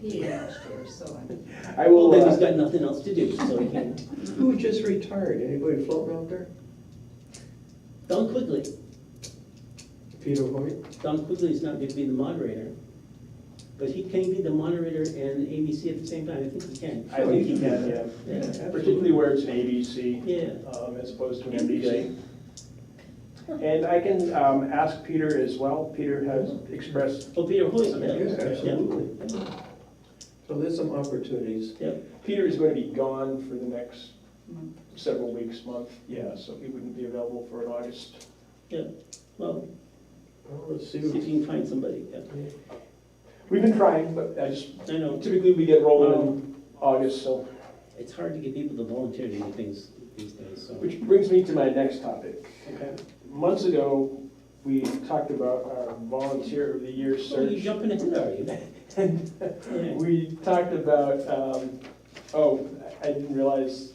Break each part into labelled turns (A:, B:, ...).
A: P last year, so I,
B: I
C: Well,
B: will,
C: then he's
B: uh,
C: got nothing else to do, so he can,
D: Who just retired? Anybody floating out there?
C: Don Quigley,
D: Peter Hoyt?
C: Don Quigley's not gonna be the moderator. But he can be the moderator and ABC at the same time, I think he can.
B: I think you can, yeah,
C: Yeah,
B: particularly where it's an ABC
C: Yeah,
B: um, as opposed to an NBC. And I can um, ask Peter as well, Peter has expressed,
C: oh, Peter Hoyt,
B: I mean,
C: yeah.
B: yeah,
D: Absolutely. So there's some opportunities.
B: Peter is going to be gone for the next
A: Month.
B: several weeks, month, yeah, so he wouldn't be available for an August.
C: Well,
D: Well, let's see.
C: see if
D: what-
C: you can find somebody, yeah.
B: We've been trying, but I just,
C: I know,
B: typically we get rolling in August, so.
C: it's hard to get people to volunteer to do things these days, so.
B: Which brings me to my next topic.
C: Okay.
B: Months ago, we talked about our volunteer of the year
C: Oh, you
B: search.
C: jumping ahead, are you?
B: And
C: Yeah,
B: we talked about, um, oh, I didn't realize,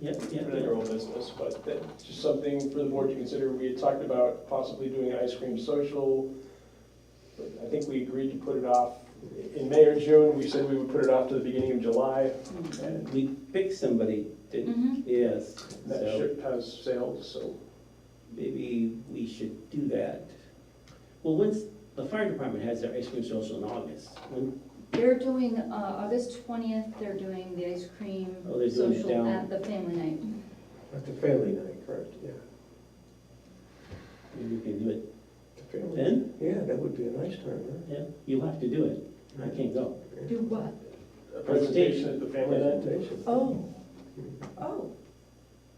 C: yeah,
B: I
C: yeah,
B: really
C: yeah.
B: your old business, but that, just something for the board to consider. We had talked about possibly doing an ice cream social. but I think we agreed to put it off in May or June. We said we would put it off to the beginning of July. And
C: We picked somebody, didn't,
A: Mhm.
C: yes,
B: that
C: so
B: ship has sailed, so
C: maybe we should do that. Well, once, the fire department has their ice cream social in August, when,
A: They're doing, uh, August twentieth, they're doing the ice cream
C: Oh, they're doing it
A: social
C: down.
A: at the family night.
D: At the family night, correct, yeah.
C: maybe we can do it
D: The family-
C: then,
D: Yeah, that would be a nice time,
C: yeah, you'll have to do it,
D: huh?
C: I can't go.
A: Do what?
B: a presentation at the family event.
D: Presentation.
E: Oh, oh,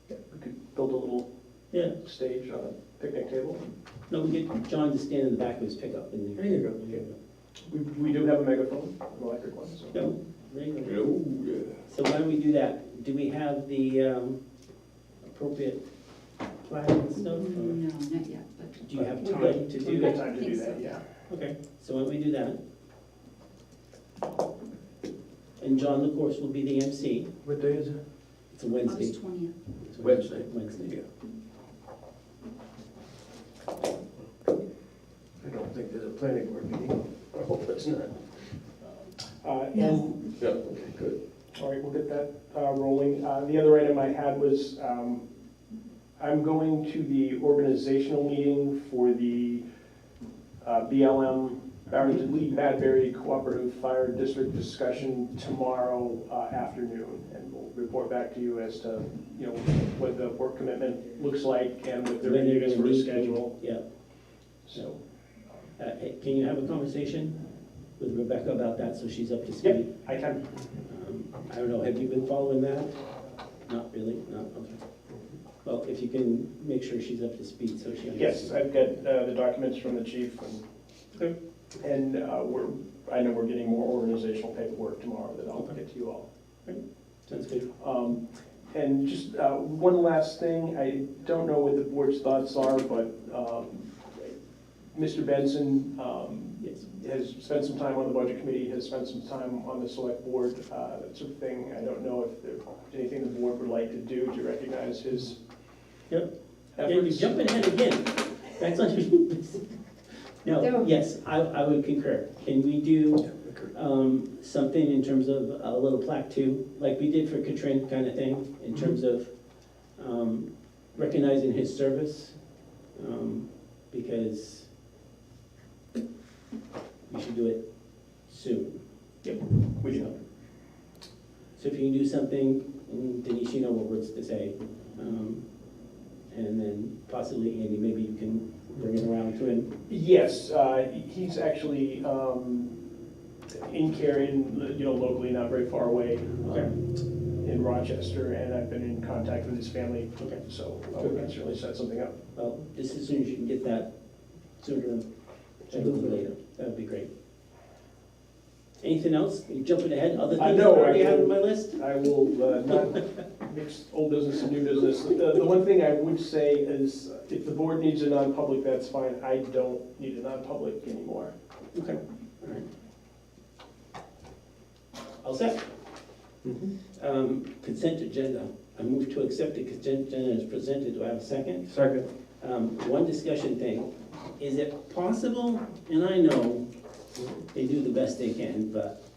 B: We could build a little
C: Yeah,
B: stage on a picnic table.
C: no, we get John to stand in the back of his pickup in
D: There
C: there.
D: you go.
B: We, we do have a megaphone, an electric one, so.
C: No, there you go.
D: Oh, yeah.
C: So why don't we do that? Do we have the um, appropriate plaque and stuff? or Do
A: No, not yet, but.
C: you have
B: We've got-
C: time to do
B: We've got
C: that?
B: time to
A: I
B: do
A: think
B: that,
A: so.
B: yeah.
C: Okay, so why don't we do that? And John, of course, will be the MC.
D: What day is it?
C: It's a Wednesday.
A: August twentieth.
C: It's a
D: Wednesday.
C: Wednesday.
D: I don't think there's a planning board meeting. I hope it's not.
B: Uh,
E: Yes.
B: and-
D: Yeah. Okay, good.
B: All right, we'll get that uh, rolling. Uh, The other item I had was, um, I'm going to the organizational meeting for the uh, BLM, Barrington Lee Madberry Cooperative Fire District discussion tomorrow uh, afternoon. And we'll report back to you as to, you know, what the work commitment looks like and what the
C: When they're
B: readiness
C: gonna
B: for a
C: meet,
B: schedule,
C: Yeah.
B: so.
C: Uh, hey, Can you have a conversation with Rebecca about that so she's up to speed?
B: I can,
C: Um, I don't know, have you been following that? Not really, not, okay. Well, if you can make sure she's up to speed so she
B: yes,
C: understands.
B: I've got uh, the documents from the chief and
C: Okay.
B: And uh, we're, I know we're getting more organizational paperwork tomorrow that I'll get to you all.
C: Sounds good.
B: Um, And just uh, one last thing, I don't know what the board's thoughts are, but um, Mr. Benson um,
C: Yes.
B: has spent some time on the budget committee, has spent some time on the select board, uh, that sort of thing. I don't know if there's anything the board would like to do to recognize his
C: Yep. Yeah, you're
B: efforts.
C: jumping ahead again. That's on your No,
A: No.
C: yes, I, I would concur. Can we do, um, something in terms of a little plaque too? Like we did for Katrin kind of thing, in
B: Mm-hmm.
C: terms of, um, recognizing his service? Um, because we should do it soon.
B: We do.
C: So if you can do something, and Denise, you know what words to say. um, And then possibly, Andy, maybe you can bring it around to him.
B: Yes, uh, he's actually um, in Carian, you know, locally, not very far away,
C: Okay.
B: um, in Rochester, and I've been in contact with his family,
C: Okay.
B: so uh, we can certainly set something up.
C: Well, just as soon as you can get that, sooner rather than later, that would be great. Anything else? You jumping ahead, other
B: I
C: things that
B: know, I
C: already have on
B: can-
C: my list?
B: I will uh, not mix old business and new business. Uh, The the one thing I would say is, if the board needs a non-public, that's fine, I don't need a non-public anymore.
C: Okay, all right. All set?
D: Mm-hmm.
C: Um, Consent agenda. I move to accept the consent agenda as presented. Do I have a second?
D: Second.
C: um, one discussion thing. Is it possible, and I know they do the best they can, but